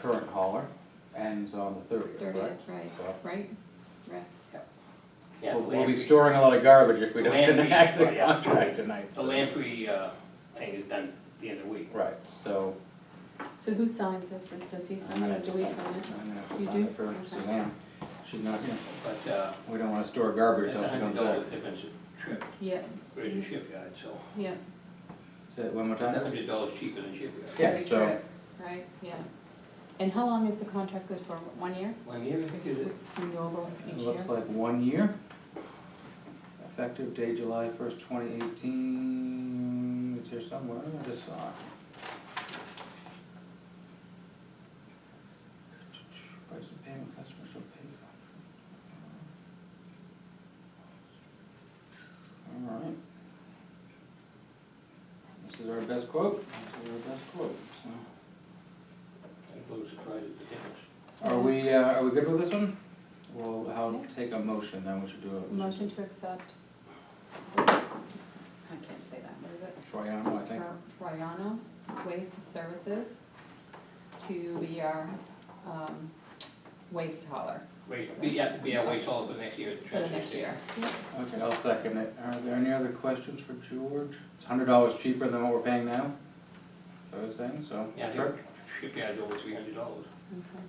current hauler ends on the thirtieth, thirtieth, right, So- right, right. Yeah, We'll, the we'll be Lamprey- storing a lot of garbage if we don't Land re- enact the oh, yeah. contract tonight, The so. Lamprey, uh, thing is done the end of the week. Right, so, So who signs this, does he I'm sign it gonna or have do to we sign, sign it? I'm gonna have to You sign do? it for Okay. Suzanne, she's not here, But, uh, we don't wanna store garbage it's until she a hundred comes dollar back. difference a trip Yeah, versus shipyard, so yeah, Say it one more it's a time? hundred dollars cheaper than shipyard. Yeah, every so- trip, right, yeah. And how long is the contract good for, one year, One year, I think, is it? renewable It each year? looks like one year. Effective date July first, twenty eighteen, it's here somewhere, I just saw it. Price of payment, customer shall pay. Alright. This is our best quote, this is our best quote, so. I'm a little surprised at the difference. Are we, uh, are we good with this one? Well, I'll Yeah. take a motion, then we should do a Motion to accept. I can't say that, what is it? Troyano, I think. Tri- Triano Waste Services to be our, um, waste hauler Waste, we have, we have waste all for next year. for the next year. Okay, I'll second it. Are there any other questions for George? It's hundred dollars cheaper than what we're paying now? So I was saying, so. Yeah, I think shipyard's over three hundred dollars. Okay.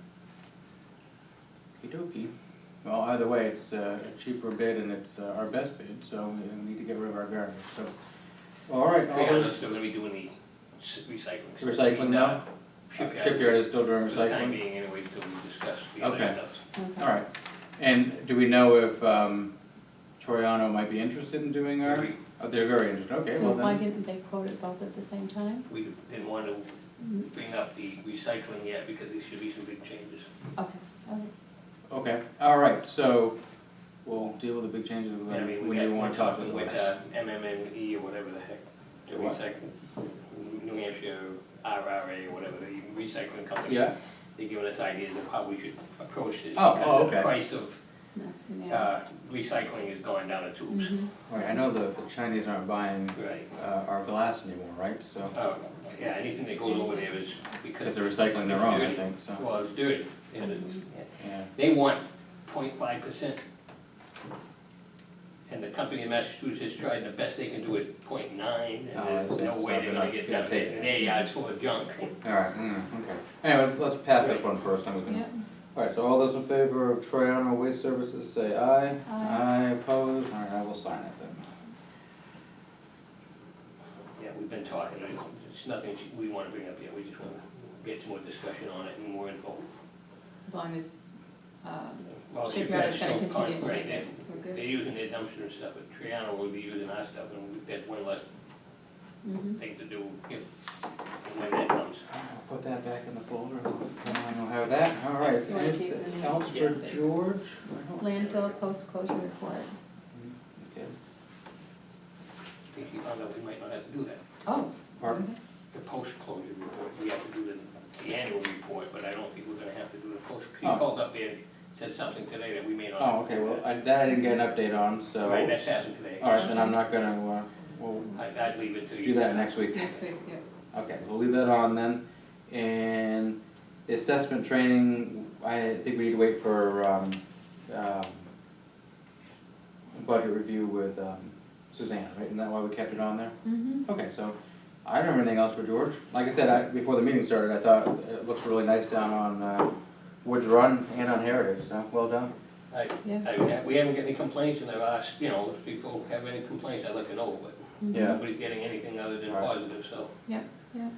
Okey-dokey. Well, either way, it's uh, a cheaper bid and it's uh, our best bid, so we need to get rid of our garbage, so. All right, all Three those- hundred's still gonna be doing the s- recycling. stuff. Recycling now? Shipyard. Shipyard is still doing For the time recycling? being anyway, until we discuss the other Okay. stuff. Okay. All right. And do we know if um, Troyano might be interested in doing our, We- oh, they're very interested, okay, So well why then. didn't they quote it both at the same time? We didn't want to bring up the recycling yet because there should be some big changes. Okay, okay. Okay, all right, so we'll deal with the big changes I when mean, when we you had want one to talk to talking them. with uh, MMME or whatever the heck, the The what? recycling, New Hampshire RRA or whatever, the recycling company. Yeah, They're giving us ideas of how we should approach this Oh, because oh, of the okay. price of No, yeah. uh, recycling is going down the tubes. Mhm. right, I know the the Chinese aren't buying Right. uh, our glass anymore, right? So, Uh, Yeah, anything that goes over there is because. because they're recycling their it's own, I dirty. think, so, Well, it's dirty, and it's, yeah. They want 0.5 percent. And the company in Massachusetts tried, and the best they can do is 0.9, Oh, I and there's see. no So way they're they're gonna not get gonna that, take it. and their yard's full of junk. All right, mm, okay. Anyways, let's pass this one first, I'm gonna. Yep, All right, so all those in favor of Triano Waste Services, say aye. Aye. Aye, opposed, all right, I will sign it then. Yeah, we've been talking, it's, it's nothing sh- we wanna bring up yet, we just wanna get some more discussion on it and more info. as long as, um, Well, shipyard shipyard's is gonna still continue to con- take right, it, they- we're good. They're using their dumpster and stuff, but Triano will be using our stuff, and we- that's one less Mhm. thing to do if, and when that comes. I'll Put that back in the folder, I don't have that, all right. Yes, you wanna keep it in Anything there. else Yeah. for George? I don't- Landfill post closure report. Okay. I think he found out we might not have to do that. Oh. Pardon? okay. the post-closure report, we have to do the, the annual report, but I don't think we're gonna have to do the post, she Oh. called up there, and said something today that we may not. Oh, okay, well, I- that I didn't get an update on, so. Right, that's happened today. All right, then I'm not gonna, uh, we'll I'd, I'd leave it to do you. that next week. Next week, yeah. Okay, we'll leave that on then. And the assessment training, I think we need to wait for, um, um, budget review with um, Suzanne, right? Isn't that why we kept it on there? Mm-hmm. Okay, so I don't have anything else for George. Like I said, I, before the meeting started, I thought it looks really nice down on, uh, Woods Run and on Heritage, so well done. I, Yeah. I, we haven't got any complaints, and I've asked, you know, if people have any complaints, I'd like to know, but mhm. Yeah. nobody's getting anything other than All right. positive, so.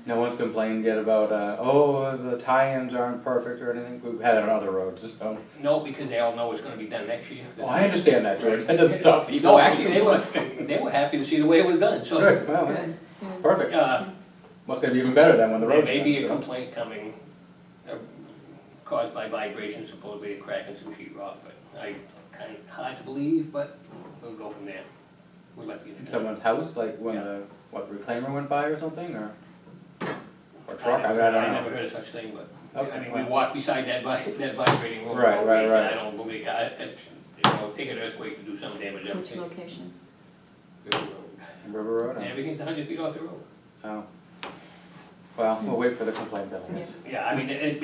No one's complained yet about, uh, oh, the tie-ins aren't perfect or anything. We've had it on other roads, so. No, because they all know it's gonna be done next year. Well, Oh, I understand that, George. That doesn't stop people. No, actually, they were, they were happy to see the way it was done, so, Good, well, Good, yeah. perfect. uh, Must gonna be even better than when the There road's may be a done, so. complaint coming, uh, caused by vibrations, supposedly a crack in some sheet rock, but I kind of hard to believe, but we'll go from there. We'll let the engineer. Someone's house, like when Yeah. the, what, reclaimer went by or something, or? Or truck, I mean, I I don't never know. heard of such thing, but, I Okay, mean, we well. walked beside that vi, that vibrating road. Right, right, and right. I don't believe, I, uh, it's, you know, take an earthquake to do some damage, I would Which think. location? River Road, I- Everything's a hundred feet off the road. oh. Well, we'll wait for the complaint bill, I guess. Yeah. Yeah, I mean, it, it-